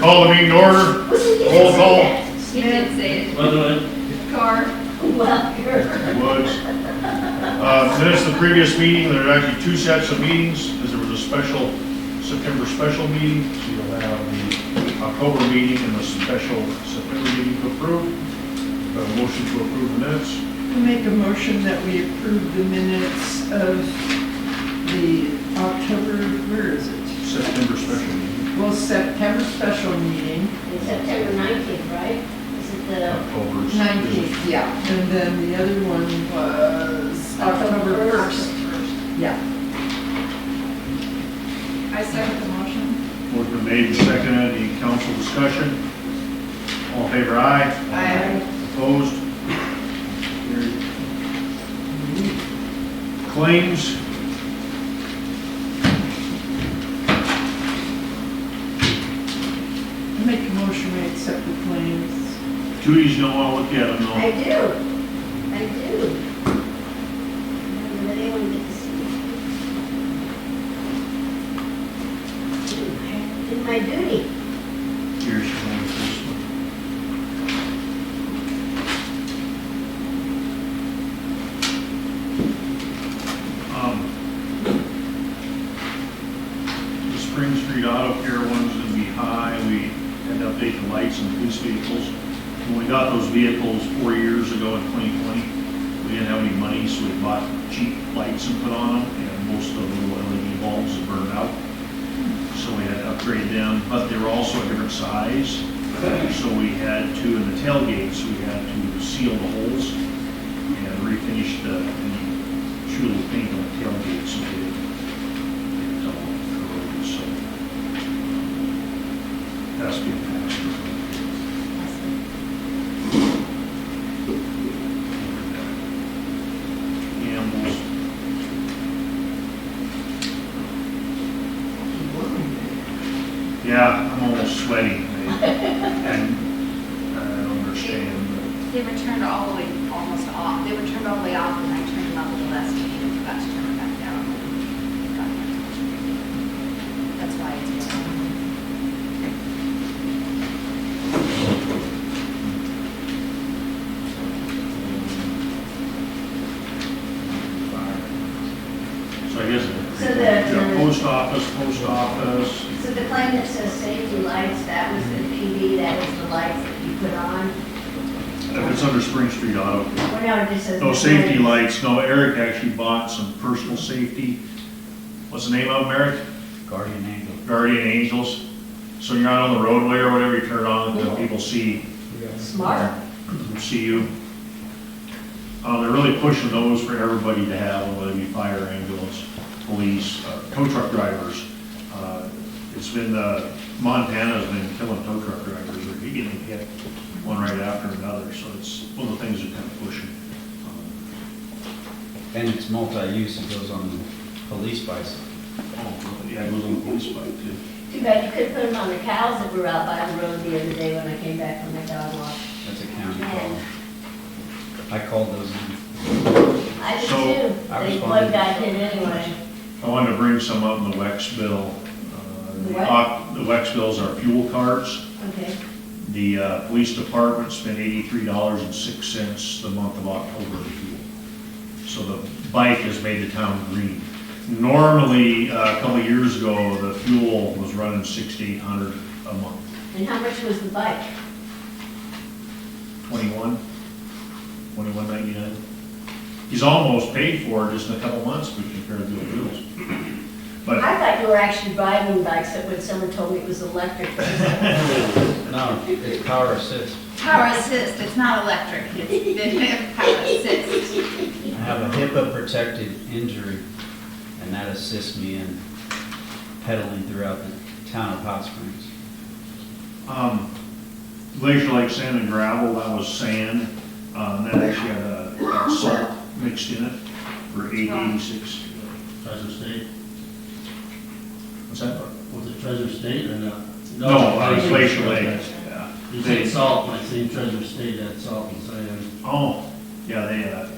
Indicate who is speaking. Speaker 1: Call the meeting to order. Roll call.
Speaker 2: He did say it.
Speaker 3: By the way,
Speaker 2: Car,
Speaker 1: Woods. Uh, Minutes of the previous meeting, there are actually two sets of meetings, because there was a special, September special meeting, so you'll have the October meeting and the special September meeting to approve. Uh, Motion to approve the minutes.
Speaker 4: I Make a motion that we approve the minutes of the October, where is it?
Speaker 1: September special meeting,
Speaker 4: Well, September special meeting,
Speaker 5: It's September nineteenth, right? Is it the,
Speaker 1: October's.
Speaker 4: nineteenth, yeah. And then the other one was October
Speaker 5: October
Speaker 4: first.
Speaker 5: first.
Speaker 4: Yeah.
Speaker 2: I second the motion.
Speaker 1: Motion made and seconded, any council discussion? All in favor, aye?
Speaker 2: Aye.
Speaker 1: Opposed? Carried. Claims?
Speaker 4: I Make a motion we accept the claims.
Speaker 1: Judy's gonna wanna look at them
Speaker 5: I
Speaker 1: though.
Speaker 5: do, I do. Did anyone get to see? it? Did my duty.
Speaker 1: Here's your one, this one. Um, The Spring Street Auto Care one's gonna be high, we had to update the lights and police vehicles. When we got those vehicles four years ago in twenty twenty, we didn't have any money, so we bought cheap lights and put on them, and most of the little LED bulbs have burned out so we had to upgrade them, but they were also a different size. So we had to, in the tailgates, we had to seal the holes and refinish the, and shoot a little paint on the tailgate so they didn't get all corroded, so. That's been passed. Animals, yeah, I'm almost sweating. And uh, I don't understand, but
Speaker 2: They were turned all the way, almost off. They were turned all the way off and I turned them up the last meeting and forgot to turn them back down. Got it. That's why it's yellow.
Speaker 1: So I guess.
Speaker 5: So the-
Speaker 1: Yeah, Post office, post office,
Speaker 5: So the claim that says safety lights, that was the PD, that was the lights that you put on?
Speaker 1: if it's under Spring Street Auto.
Speaker 5: Well, no, it just says.
Speaker 1: No safety lights, no, Eric actually bought some personal safety, what's the name of them, Eric?
Speaker 3: Guardian Angel.
Speaker 1: Guardian Angels. So you're out on the roadway or whatever, you turn it on, and then people see,
Speaker 5: Smart.
Speaker 1: see you. Uh, they're really pushing those for everybody to have, whether it be fire, ambulance, police, uh, tow truck drivers. Uh, It's been, uh, Montana's been killing tow truck drivers, or you getting hit one right after another, so it's one of the things they're kind of pushing. Um,
Speaker 3: And it's multi-use, it goes on the police bicycle.
Speaker 1: Oh, yeah, it was on the police bike too.
Speaker 5: Too bad you couldn't put them on the cows that were out by the road the other day when I came back from my dog walk.
Speaker 3: That's a county call. I called those in.
Speaker 5: I did
Speaker 1: So,
Speaker 5: too.
Speaker 3: I
Speaker 5: They- One
Speaker 3: responded.
Speaker 5: guy did anyway.
Speaker 1: I wanted to bring some up in the Wex bill. Uh,
Speaker 5: The
Speaker 1: the
Speaker 5: what?
Speaker 1: op- The Wex bills are fuel cards.
Speaker 5: Okay.
Speaker 1: The uh, police department spent eighty-three dollars and six cents the month of October in fuel. So the bike has made the town green. Normally, uh, a couple of years ago, the fuel was running sixty-eight hundred a month.
Speaker 5: And how much was the bike?
Speaker 1: Twenty-one, twenty-one ninety-nine. He's almost paid for it just in a couple months, we compared to the fuels. But
Speaker 5: I thought you were actually riding bikes, but when someone told me it was electric.
Speaker 3: No, it's power assist.
Speaker 2: Power assist, it's not electric. It's power assist.
Speaker 3: I have a HIPAA protected injury, and that assists me in pedaling throughout the town of Hot Springs.
Speaker 1: Um, Glacier Lake Sand and Gravel, that was sand, um, that actually had a a salt mixed in it for eight eighty-six.
Speaker 6: Treasure State,
Speaker 1: What's that?
Speaker 6: was it Treasure State or not?
Speaker 1: No, uh, Glacier Lake, yeah.
Speaker 6: You said salt, and I seen Treasure State had salt and sand.
Speaker 1: Oh, yeah, they, uh,